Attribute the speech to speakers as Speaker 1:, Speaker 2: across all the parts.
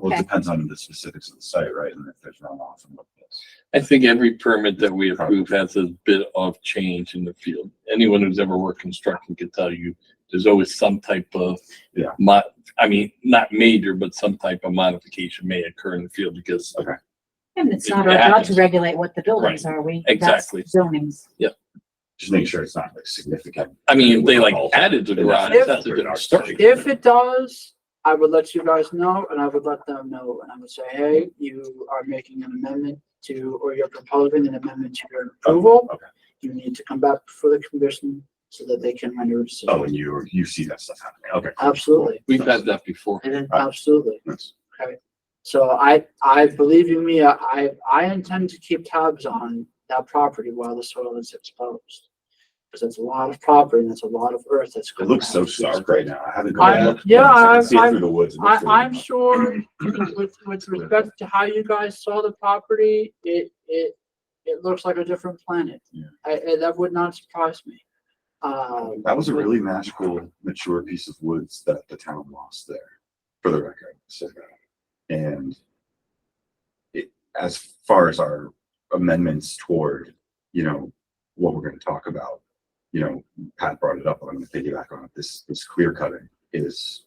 Speaker 1: Well, it
Speaker 2: Okay.
Speaker 1: depends on the specifics of the site, right? And if there's runoff and what it is.
Speaker 3: I think every permit that we approve has a bit of change in the field. Anyone who's ever worked construction can tell you, there's always some type of.
Speaker 1: Yeah.
Speaker 3: Mo- I mean, not major, but some type of modification may occur in the field because
Speaker 1: Okay.
Speaker 2: And it's
Speaker 3: It-
Speaker 2: not
Speaker 3: it
Speaker 2: our job to
Speaker 3: happens.
Speaker 2: regulate what the buildings are, we, that's
Speaker 3: Exactly.
Speaker 2: zonings.
Speaker 1: Just make sure it's not like significant.
Speaker 3: I mean, they like added the garage, that's a good start.
Speaker 4: If it does, I would let you guys know and I would let them know and I would say, hey, you are making an amendment to, or you're proposing an amendment to your approval.
Speaker 1: Oh, okay.
Speaker 4: You need to come back before the commission so that they can render a
Speaker 1: Oh,
Speaker 4: decision.
Speaker 1: and you, you see that stuff happening. Okay. cool,
Speaker 4: Absolutely.
Speaker 3: We've had that before.
Speaker 4: And then,
Speaker 1: Right.
Speaker 4: absolutely.
Speaker 1: cool. Nice.
Speaker 4: So I, I believe you me, I, I intend to keep tabs on that property while the soil is exposed. Cause that's a lot of property and that's a lot of earth that's.
Speaker 1: It
Speaker 4: going
Speaker 1: looks so
Speaker 4: around.
Speaker 1: stark right now. I haven't
Speaker 4: I-
Speaker 1: gone look.
Speaker 4: yeah,
Speaker 1: I can
Speaker 4: I've-
Speaker 1: see it
Speaker 4: I've-
Speaker 1: Through the woods. It
Speaker 4: I,
Speaker 1: looks really
Speaker 4: I'm
Speaker 1: nice.
Speaker 4: sure with, with respect to how you guys saw the property, it, it, it looks like a different planet.
Speaker 1: Yeah.
Speaker 4: I, I- that would not surprise me. Um,
Speaker 1: That was a really magical, mature piece of woods that the town lost there, for the record. So, and it, as far as our amendments toward, you know, what we're gonna talk about, you know, Pat brought it up, I'm gonna piggyback on it. This, this clear cutting is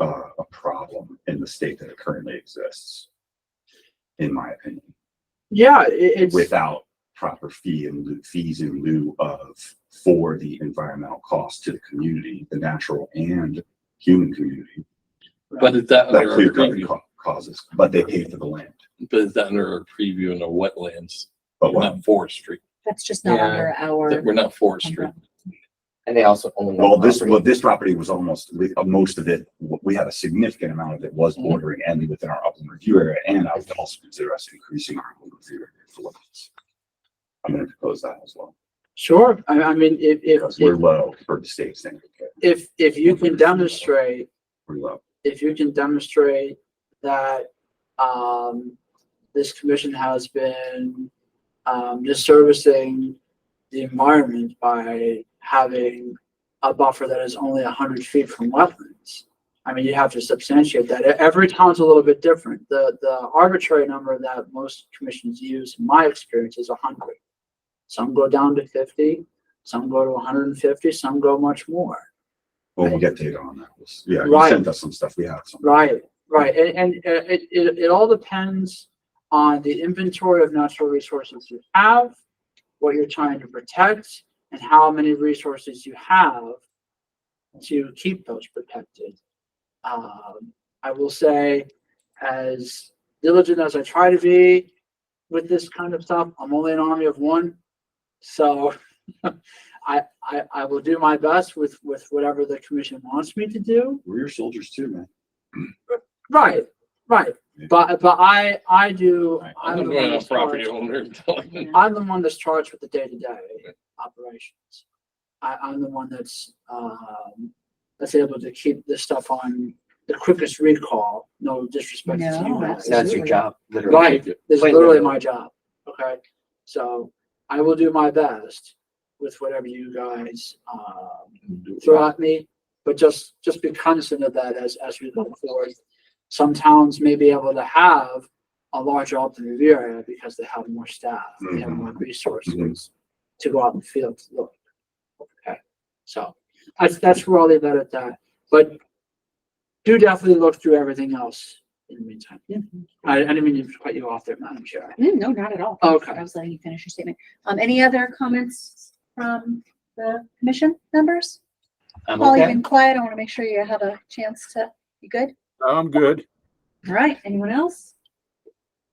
Speaker 1: uh, a problem in the state that it currently exists, in my opinion
Speaker 4: yeah, it, it's,
Speaker 1: without proper fee and lieu- fees in lieu of for the environmental cost to the community, the natural and human community.
Speaker 3: But is
Speaker 4: Oh,
Speaker 3: that
Speaker 1: That
Speaker 3: under our
Speaker 1: clear cutting
Speaker 3: preview?
Speaker 1: ca- causes, but they pay for the land.
Speaker 3: But is that under our preview in the wetlands,
Speaker 1: But what,
Speaker 3: not forestry?
Speaker 2: That's just not
Speaker 5: Yeah.
Speaker 2: under our.
Speaker 3: We're not forestry.
Speaker 5: And they also own.
Speaker 4: Mm-hmm.
Speaker 5: the
Speaker 1: well, this,
Speaker 5: property.
Speaker 1: well, this property was almost, we- uh, most of it, w- we had a significant amount of it was
Speaker 4: Mm-hmm.
Speaker 1: bordering and within our upland review area, and I would also consider us increasing our upland review area for wetlands. I'm gonna propose that as well,
Speaker 4: sure, I, I mean, if, if,
Speaker 1: because we're
Speaker 4: if,
Speaker 1: low for the state standard, okay,
Speaker 4: if, if you can demonstrate,
Speaker 1: we're low.
Speaker 4: if you can demonstrate that, um, this commission has been, um, disservicing the environment by having a buffer that is only hundred feet from wetlands. I mean, you have to substantiate that. E- Every town's a little bit different. The, the arbitrary number that most commissions use, in my experience, is hundred. Some go down to fifty, some go to hundred and fifty, some go much more.
Speaker 1: When we get data on that, we'll s- yeah, you
Speaker 4: Right.
Speaker 1: sent us some stuff, we have some.
Speaker 4: Right, right, and, and uh, it, it, it all depends on the inventory of natural resources you have, what you're trying to protect, and how many resources you have to keep those protected. Um, I will say, as diligent as I try to be with this kind of stuff, I'm only an army of one. So I, I, I will do my best with, with whatever the commission wants me to do.
Speaker 1: We're your soldiers too, man.
Speaker 4: Right, right.
Speaker 1: Yeah.
Speaker 4: But, but I, I do,
Speaker 1: Right.
Speaker 4: I'm the
Speaker 3: I'm
Speaker 4: one
Speaker 3: not a
Speaker 4: that's
Speaker 3: property
Speaker 4: charged,
Speaker 3: owner.
Speaker 4: I'm the one that's charged with the day-to-day operations. I, I'm the one that's, um, that's able to keep this stuff on the quickest recall, no disrespect to you
Speaker 2: No,
Speaker 4: guys.
Speaker 5: That's your job, literally.
Speaker 4: Right, this is
Speaker 5: Plain
Speaker 4: literally
Speaker 5: vanilla.
Speaker 4: my job, okay? So I will do my best with whatever you guys, um, throw at me, but just, just be cognizant of that as, as we go forward. Some towns may be able to have a larger open review area because they have more staff, they have
Speaker 1: Mm-hmm.
Speaker 4: more resources to go out in the field to look. Okay, so that's, that's where I'll leave that at that, uh, but do definitely look through everything else in the meantime.
Speaker 2: Mhm.
Speaker 4: I, I didn't mean to cut you off there, Madam Chair.
Speaker 2: Mm, No, not at all.
Speaker 4: Okay.
Speaker 2: I was letting you finish your statement. Um, any other comments from the commission members?
Speaker 5: I'm
Speaker 2: Paul, you've
Speaker 5: okay.
Speaker 2: been quiet. I want to make sure you have a chance to, you good?
Speaker 6: I'm good.
Speaker 2: All right, anyone else?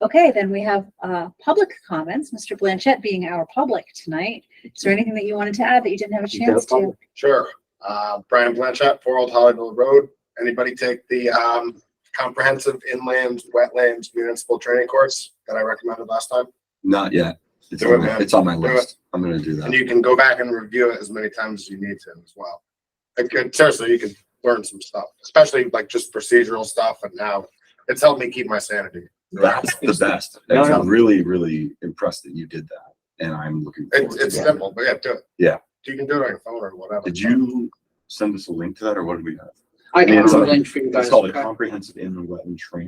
Speaker 2: Okay, then we have uh, public comments, Mr. Blanchett being our public tonight. Is there anything that you wanted to add that you didn't have a
Speaker 5: You got a
Speaker 2: chance to?
Speaker 5: public.
Speaker 7: Sure. Uh, Brian Blanchett, Four Old Hollyville Road. Anybody take the, um, comprehensive inland wetlands municipal training course that I recommended last time?
Speaker 1: Not yet. It's
Speaker 7: Do it,
Speaker 1: on my,
Speaker 7: man.
Speaker 1: it's on my
Speaker 7: Do it.
Speaker 1: list. I'm gonna do
Speaker 7: And
Speaker 1: that.
Speaker 7: you can go back and review it as many times as you need to as well. Like, uh, seriously, you can learn some stuff, especially like just procedural stuff and now it's helped me keep my sanity.
Speaker 1: That's the best.
Speaker 5: No,
Speaker 1: Actually,
Speaker 5: no.
Speaker 1: I'm really, really impressed that you did that and I'm looking forward
Speaker 7: It's,
Speaker 1: to
Speaker 7: it's
Speaker 1: it.
Speaker 7: simple, but yeah, do it.
Speaker 1: Yeah.
Speaker 7: You can do it on your phone or whatever.
Speaker 1: Did you send us a link to that or what did we have?
Speaker 4: I
Speaker 1: Yeah,
Speaker 4: can
Speaker 1: it's
Speaker 4: have a
Speaker 1: on-
Speaker 4: link for you guys.
Speaker 1: It's called a
Speaker 4: okay?
Speaker 1: comprehensive inland wetland training.